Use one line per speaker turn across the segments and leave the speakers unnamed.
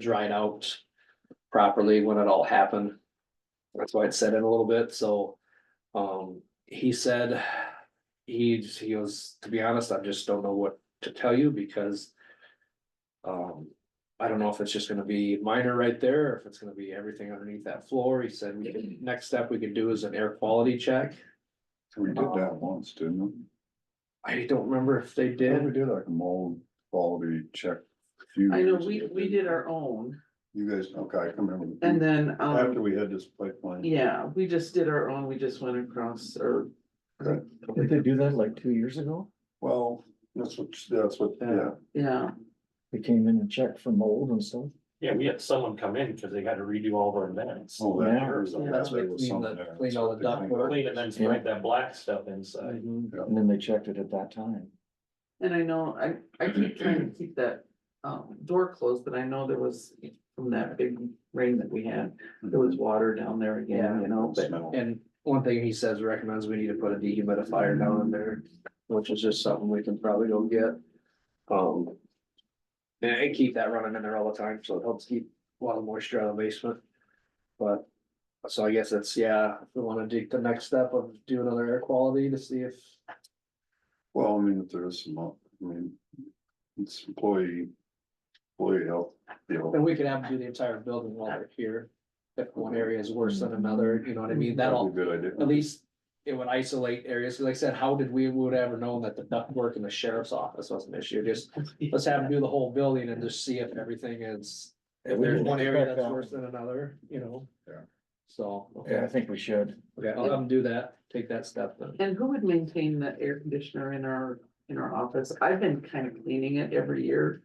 dried out properly when it all happened. That's why it set in a little bit, so, um, he said, he's, he was, to be honest, I just don't know what to tell you because um, I don't know if it's just gonna be minor right there, or if it's gonna be everything underneath that floor, he said, we can- next step we could do is an air quality check.
We did that once, didn't we?
I don't remember if they
Didn't we
did,
did like a mold quality check. a few
I know,
years
we,
ago,
we
didn't
did our own
You guys, okay, I can remember.
and then,
After
um,
we had this pipeline.
yeah, we just did our own, we just went across or.
Did they do that like two years ago?
Well, that's what, that's what, yeah,
Yeah,
They came in and checked for mold and stuff.
Yeah, we had someone come in because they had to redo all their vents.
oh, that
Yeah.
years ago,
Yeah.
that's what it was
Clean
something
the-
there.
clean all the ductwork.
Clean and then spread that black stuff inside.
Yeah.
And then they checked it at that time.
and I know, I, I keep trying to keep that, um, door closed, but I know there was from that big rain that we had, there was water down there again, you know, but.
Smell.
and one thing he says recommends we need to put a dehumidifier down in there, which is just something we can probably go get. Um. And I keep that running in there all the time, so it helps keep a lot of moisture out of the basement. But, so I guess that's, yeah, if we wanna take the next step of do another air quality to see if
Well, I mean, if there is some, uh, I mean, it's employee, employee health, you know.
And we could have to do the entire building while they're here, if one area is worse than another, you know what I mean,
that'd
that'll,
be a Good
at
idea.
least. It would isolate areas, 'Cause like I said, how did we would ever known that the ductwork in the sheriff's office was an issue, just, let's have them do the whole building and just see if everything is. If there's one area that's worse than another, you know?
Yeah.
So,
Yeah, I
okay,
think we should.
okay, I'll have them do that, take that step then.
And who would maintain the air conditioner in our, in our office? I've been kind of cleaning it every year.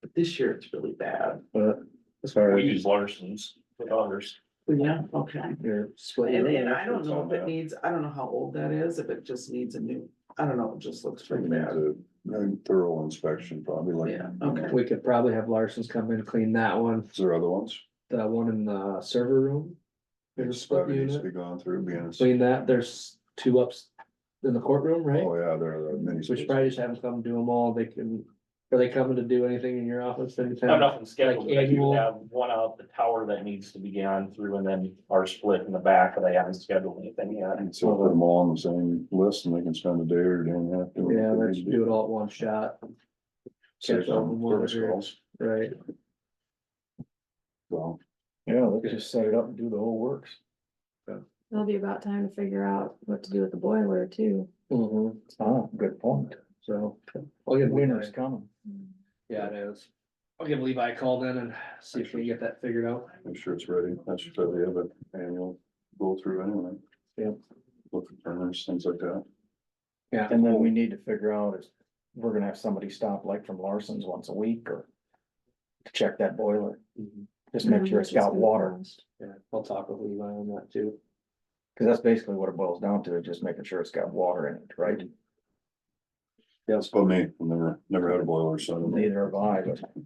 But this year it's really bad.
But as far
We
as
use Larson's with others.
Yeah, okay.
your
Split
And,
it
and
up.
I don't know if
Yeah.
it needs, I don't know how old that is, if it just needs a new, I don't know, it just looks pretty bad.
A Thorough inspection, probably like,
Yeah, okay.
We could probably have Larson's come in, and clean that one,
is there other ones?
the one in the server room. There's a split
That needs
unit.
to Be gone through, be honest.
Between that, there's two ups in the courtroom, right?
Oh, yeah, there are many.
So we should probably just have them come do them all, they can, are they coming to do anything in your office
I have
anytime?
nothing scheduled, but I do
annual-
have one out the tower that needs to be gone through and then our split in the back, but I haven't scheduled anything yet.
And So put them all on the same list and they can spend a day or day and a half. doing
Yeah,
what they
let's
need to
do it all at one shot,
Save
catch all
some
in one
service
area.
calls.
right?
Well,
Yeah, let's just set it up and do the whole works.
It'll be about time to figure out what to do with the boiler too.
Mm-hmm.
Ah, good point.
So, I'll give Levi,
Winter's coming.
yeah, it is. I'll give Levi a call then and see if we can get that figured out.
I'm sure it's ready. That's should probably have an annual go through anyway.
Yep.
Look at burners, things like that.
Yeah.
And then we need to figure out if we're gonna have somebody stop like from Larson's once a week or to check that boiler.
Mhm.
Just make sure it's got water,
Yeah, I'll talk with Levi on that too.
cause that's basically what it boils down to, is just making sure it's got water in it, right?
That's about me. I've Never, never had a boiler, so. I don't know.
Neither have I, but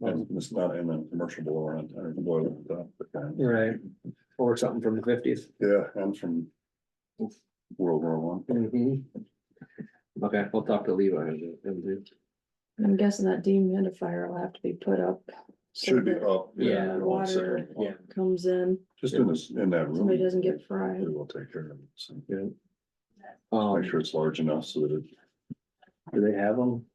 And It's not in a commercial boiler, I don't have a boiler like that, but, uh,
Right. Or something from the fifties.
Yeah, and from World War One.
Okay, I'll talk to Levi and and do.
I'm guessing that dehumidifier will have to be put up. so
Should be
that
up.
Yeah.
you know, on the second
Water, yeah.
floor.
Comes in,
Just in this, in that room.
somebody doesn't get fried.
We'll take care of it. So
Um,
make sure it's large enough so that it
do they have them?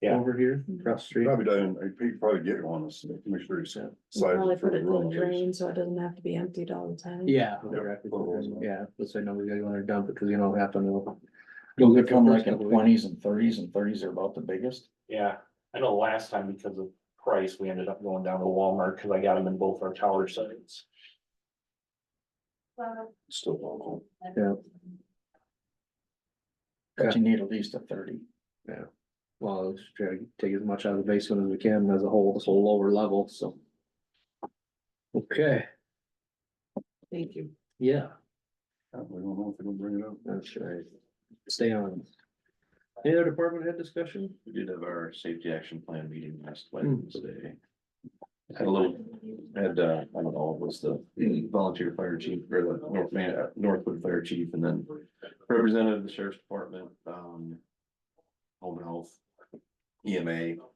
Yeah.
Over here, across the street?
Probably doesn't, I think probably get one, so make sure you said.
We'll Probably put it in the drain, so it doesn't have to be emptied all the time.
Yeah.
Yeah.
exactly. Yeah, let's say no, we gotta go in there dump it, cause you know what happened. it'll- You'll
Those
get
are
from
come like in twenties and thirties, and thirties are about the biggest.
Yeah, I know last time because of price, we ended up going down to Walmart because I got them in both our tower sites.
Still local.
But you need at least a thirty.
Well, let's try to take as much out of the basement as we can as a whole, this whole lower level, so. Okay,
Thank you.
yeah,
Yeah, We don't know if they're gonna bring it up.
that's right. Stay on. Any other department head discussion?
We did have our safety action plan meeting last
Hmm.
Wednesday. Had a little, had, uh, I don't know, it was the volunteer fire chief or the North Man, uh, Northwood Fire Chief and then representative of the sheriff's department, um. Home health, EMA, uh,